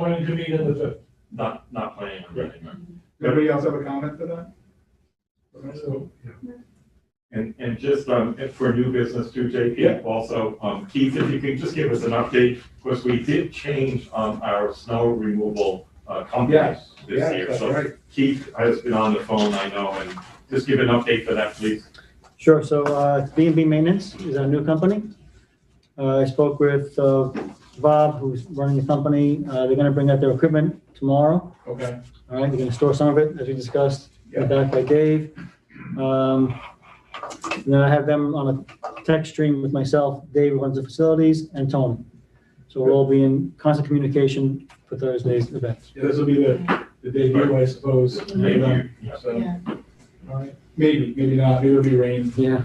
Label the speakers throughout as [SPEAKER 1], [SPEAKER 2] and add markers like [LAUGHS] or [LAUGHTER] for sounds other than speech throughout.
[SPEAKER 1] planning to meet on the fifth.
[SPEAKER 2] Not, not planning on running, no.
[SPEAKER 3] Anybody else have a comment to that? Okay, so-
[SPEAKER 1] So, yeah.
[SPEAKER 2] And, and just, um, and for new business too,
[SPEAKER 3] Yeah.
[SPEAKER 2] JP, also, um, Keith, if you could just give us an update, of course, we did change, um, our snow removal, uh, company
[SPEAKER 3] Yes,
[SPEAKER 2] this year.
[SPEAKER 3] that's
[SPEAKER 2] So
[SPEAKER 3] right.
[SPEAKER 2] Keith has been on the phone, I know, and just give an update for that, please.
[SPEAKER 4] Sure, so uh, it's B and B Maintenance is our new company. Uh, I spoke with uh, Bob, who's running the company. Uh, They're going to bring out their equipment tomorrow.
[SPEAKER 3] Okay,
[SPEAKER 4] All right, they're going to store some of it, as we discussed,
[SPEAKER 3] Yeah.
[SPEAKER 4] back by Dave. Um, and Then I have them on a text stream with myself, Dave who runs the facilities, and Tony. So we'll all be in constant communication for Thursday's event.
[SPEAKER 1] Yeah, this will be the, the debut, I suppose.
[SPEAKER 2] Maybe you- yeah.
[SPEAKER 3] so,
[SPEAKER 5] Yeah,
[SPEAKER 1] All right.
[SPEAKER 3] maybe, maybe not, maybe it'll be rain.
[SPEAKER 4] Yeah,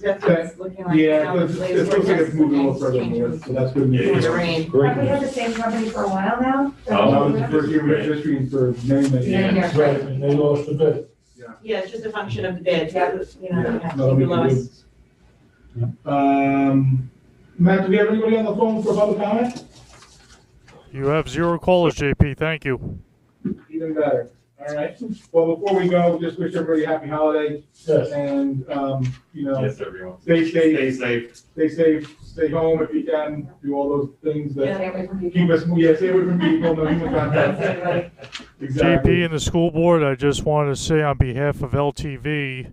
[SPEAKER 5] that's what it's looking like.
[SPEAKER 3] Yeah,
[SPEAKER 5] now
[SPEAKER 3] it
[SPEAKER 5] with
[SPEAKER 3] looks it
[SPEAKER 5] the
[SPEAKER 3] looks like it's
[SPEAKER 5] latest
[SPEAKER 3] moving a little
[SPEAKER 5] forecast
[SPEAKER 3] further
[SPEAKER 5] changes
[SPEAKER 3] north, so that's good
[SPEAKER 2] Yeah.
[SPEAKER 5] For
[SPEAKER 3] news. Oh,
[SPEAKER 5] the rain.
[SPEAKER 4] great.
[SPEAKER 6] Have we had the same company for a while now?
[SPEAKER 3] That
[SPEAKER 2] Um,
[SPEAKER 3] was the first year we were registering for many, many
[SPEAKER 5] Yeah,
[SPEAKER 3] years.
[SPEAKER 5] yeah.
[SPEAKER 1] Right, and they lost the bid.
[SPEAKER 5] Yeah, it's just a function of the bid,
[SPEAKER 6] Yeah.
[SPEAKER 5] you know,
[SPEAKER 3] Yeah,
[SPEAKER 5] yeah,
[SPEAKER 3] no, we
[SPEAKER 5] the
[SPEAKER 3] can do-
[SPEAKER 5] lowest.
[SPEAKER 3] Um, Matt, do we have anybody on the phone for public comment?
[SPEAKER 7] You have zero callers, JP. Thank you.
[SPEAKER 3] Even better, all right. Well, before we go, just wish everybody a happy holiday
[SPEAKER 1] Yes.
[SPEAKER 3] and, um, you know,
[SPEAKER 2] Yes, everyone.
[SPEAKER 3] stay safe,
[SPEAKER 2] Stay safe.
[SPEAKER 3] stay safe, stay home if you can, do all those things that
[SPEAKER 6] Stay away from people.
[SPEAKER 3] keep us, yeah, stay away from people, no human contact.
[SPEAKER 2] [LAUGHS]
[SPEAKER 3] Exactly.
[SPEAKER 7] JP and the school board, I just wanted to say on behalf of LTV,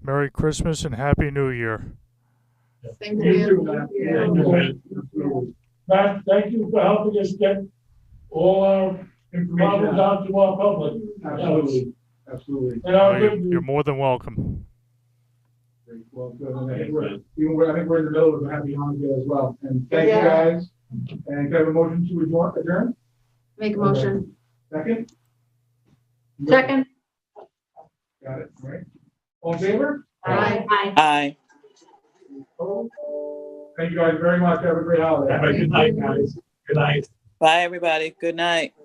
[SPEAKER 7] Merry Christmas and Happy New Year.
[SPEAKER 5] Thank
[SPEAKER 3] You too,
[SPEAKER 5] you.
[SPEAKER 3] Matt.
[SPEAKER 2] Thank you, man.
[SPEAKER 1] Matt, thank you for helping us get all our
[SPEAKER 3] Information
[SPEAKER 1] problems
[SPEAKER 3] out.
[SPEAKER 1] out to our public.
[SPEAKER 3] Absolutely, absolutely.
[SPEAKER 1] And our
[SPEAKER 7] You're-
[SPEAKER 1] good
[SPEAKER 7] You're more than welcome.
[SPEAKER 3] Great. Well, good. And I think we're, even we're- I think we're in the middle of a happy holiday as well. And thank you
[SPEAKER 5] Yeah.
[SPEAKER 3] guys. And can I have a motion to adjourn, adjourn?
[SPEAKER 5] Make
[SPEAKER 3] a motion. Second? Got it, all right. All in favor?
[SPEAKER 5] Aye.
[SPEAKER 8] Aye.
[SPEAKER 3] Opposed? Thank you guys very much. Have a great holiday.
[SPEAKER 2] Have a good night, guys. Good night.
[SPEAKER 8] Bye, everybody. Good night.